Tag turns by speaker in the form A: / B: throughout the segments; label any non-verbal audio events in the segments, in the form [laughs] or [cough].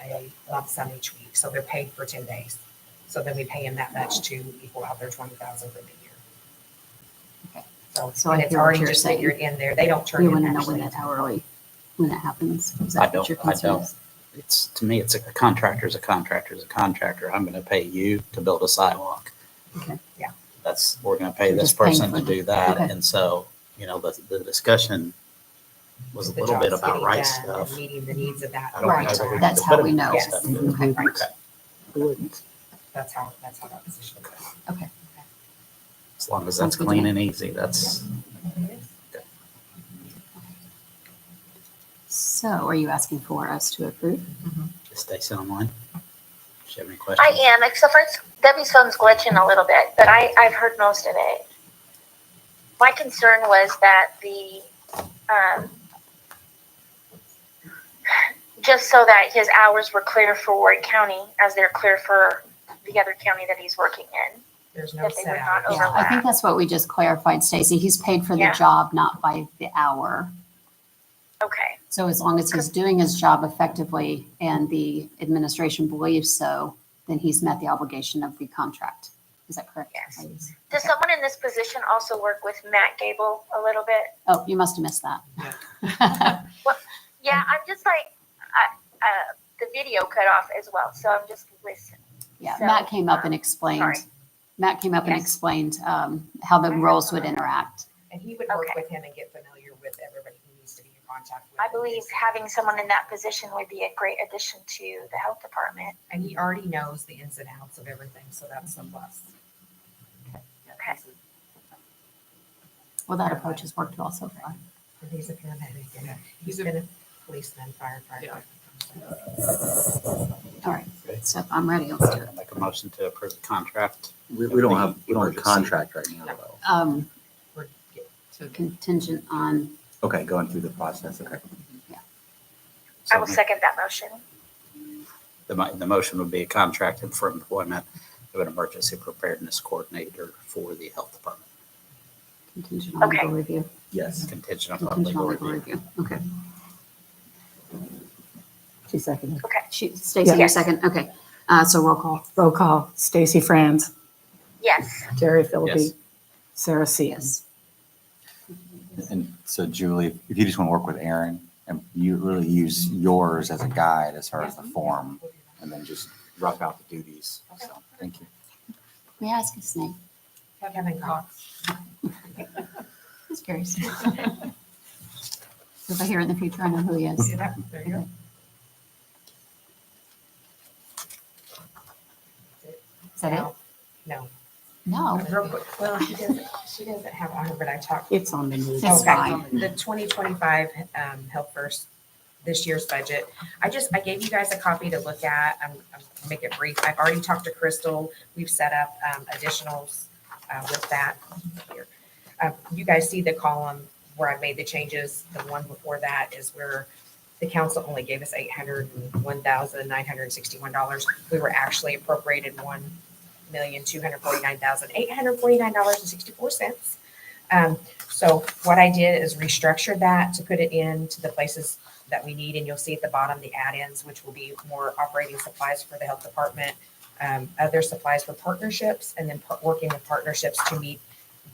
A: a lump sum each week, so they're paid for ten days. So then we pay them that much to equal out their twenty thousand for the year.
B: Okay. So
A: So,
B: I
A: and it's
B: hear what
A: already
B: you're
A: just
B: saying.
A: figured in there, they don't turn
B: We
A: in
B: want to know when
A: actually.
B: that hourly, when that happens. Is
C: I
B: that what
C: don't-
B: your
C: I
B: concern
C: don't.
B: is?
C: It's, to me, it's a contractor's a contractor's a contractor. I'm going to pay you to build a sidewalk.
B: Okay.
A: Yeah.
C: That's, we're going to pay this
B: Just paying
C: person
B: for
C: to
B: them.
C: do that.
B: Okay.
C: And so, you know, the, the discussion was a
A: The
C: little bit
A: job's
C: about
A: getting
C: right
A: done and
C: stuff.
A: Meeting the needs of that.
C: I don't
B: Right,
C: think
A: contract.
C: I
B: that's how we know.
C: Yes.
B: Okay, right.
C: Okay.
A: That's how, that's how that position goes.
C: As long
B: Sounds
C: as that's
B: good to
C: clean
B: me.
C: and easy, that's,
B: Mm-hmm. So are you asking for us to approve?
C: just stay on line. Do you have any
D: I
C: questions?
D: am, except for it's- Debbie's phone's glitching a little bit, but I, I've heard most of it. My concern was that the, um, just so that his hours were clear for Ward County as they're clear for the other county that he's working in.
A: There's no
D: That they
A: set
D: were
A: hours.
D: not
B: Yeah, I think
D: overlapped.
B: that's what we just clarified, Stacy. He's paid for the
D: Yeah.
B: job, not by the hour.
D: Okay,
B: So as long as he's doing his job effectively and the administration believes so, then he's met the obligation of the contract. Is that correct?
D: Yes.
B: ladies?
D: does someone in this position also work with Matt Gable a little bit?
B: Oh, you must have missed [laughs] that.
D: Yeah, I'm just like, I, uh, the video cut off as well, so I'm just listening.
B: Yeah,
D: So,
B: Matt came up and
D: um,
B: explained,
D: sorry.
B: Matt came up and
D: Yes.
B: explained um, how the roles would interact.
A: And he would work
D: Okay.
A: with him and get familiar with everybody who needs to be in contact with.
D: I
A: him.
D: believe having someone in that position would be a great addition to the health department.
A: And he already knows the ins and outs of everything, so that's a plus.
D: Okay.
B: Well, that approach has worked well so far.
A: And He's a paramedic, and he's been a policeman, firefighter.
B: All right,
C: Okay.
B: so I'm ready. Let's do it.
C: Make a motion to approve the contract.
E: We, we don't have, we don't have a
C: Emergency.
E: contract right now, though.
B: Um,
A: We're get- to-
B: Contingent on,
E: Okay, going through the process, okay.
D: I
C: So
D: will second that motion.
C: The, mo- the motion would be a contract for employment of an emergency preparedness coordinator for the health department,
B: contingent on
D: Okay.
B: legal review.
E: Yes.
C: contingent upon
B: Contingent
C: legal
B: on legal
C: review.
B: review, okay.
F: She seconded.
D: Okay,
B: She, Stacy, your
D: Yes.
B: second, okay. Uh, so roll call,
F: Roll call, Stacy Franz,
D: yes,
F: Jerry
C: Yes.
F: Philippi, Sarah Seas.
B: yes.
G: And so Julie, if you just want to work with Aaron and you really use yours as a guide as far as the form and then just rough out the duties. So, thank you.
B: May I ask his name?
A: Kevin Cox.
B: Just curious. So [laughs] if I hear in the future, I know who he is.
A: See that? There you go.
B: Is that it?
A: No, No.
B: No,
A: Real quick, well, she doesn't, she doesn't have on her, but I talked.
F: It's on the news.
B: It's
A: Okay.
B: fine.
A: The twenty twenty-five, um, Health First, this year's budget. I just, I gave you guys a copy to look at. I'm, I'm gonna make it brief. I've already talked to Crystal. We've set up, um, additionals, uh, with that here. Uh, you guys see the column where I made the changes. The one before that is where the council only gave us eight hundred and one thousand nine hundred and sixty-one dollars. We were actually appropriated one million two hundred forty-nine thousand eight hundred forty-nine dollars and sixty-four cents. Um, so what I did is restructure that to put it into the places that we need, and you'll see at the bottom the add-ins, which will be more operating supplies for the health department, um, other supplies for partnerships, and then par- working with partnerships to meet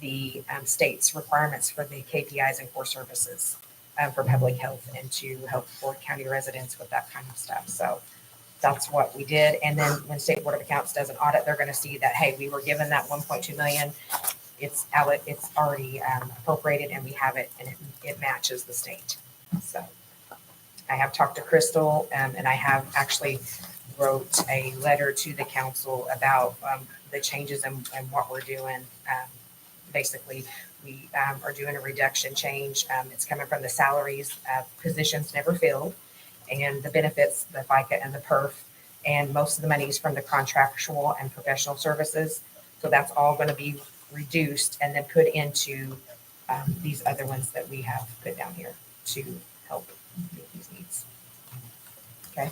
A: the, um, state's requirements for the KPIs and core services, uh, for public health and to help Ford County residents with that kind of stuff. So that's what we did. And then when State Board of Accounts does an audit, they're gonna see that, hey, we were given that one point two million it's allo- it's already um, appropriated and we have it and it, it matches the state. So I have talked to Crystal um, and I have actually wrote a letter to the council about um, the changes and, and what we're doing. Um, Basically, we um, are doing a reduction change. Um, It's coming from the salaries, uh, positions never filled and the benefits, the FICA and the PERF. And most of the money is from the contractual and professional services. So that's all going to be reduced and then put into um, these other ones that we have put down here to help meet these needs. Okay?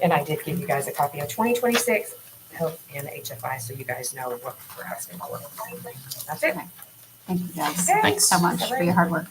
A: And I did give you guys a copy of 2026 Health and HFI, so you guys know what we're asking for. That's it.
B: Thank you guys
A: Thanks.
B: so much for your hard work.